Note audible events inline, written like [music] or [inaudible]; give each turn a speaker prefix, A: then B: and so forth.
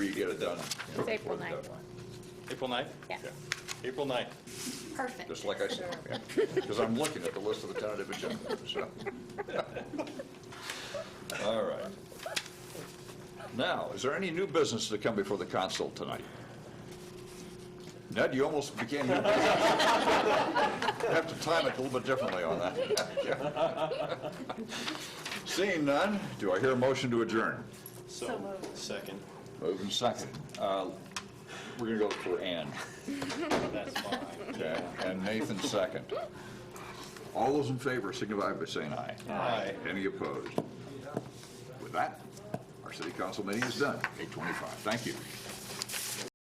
A: you get it done.
B: It's
A: Before
B: April
A: the
B: 9th.
A: deadline.
C: April 9th?
B: Yeah.
C: April 9th.
B: Perfect.
A: Just like I [laughs] said, because I'm looking at the list of the tentative agenda, so. All right. Now, is there any new business to come before the council tonight? Ned, you almost began your business. You Have to time it a little bit differently on that. [laughs] Seeing none, do I hear a motion to adjourn?
C: So moved. Second.
A: Moving second. Uh, We're going to go for Ann.
C: That's [laughs] fine.
A: Okay, and Nathan second. All those in favor signify by saying aye.
C: Aye.
A: Any opposed? With that, our city council meeting is done, 8:25. Thank you.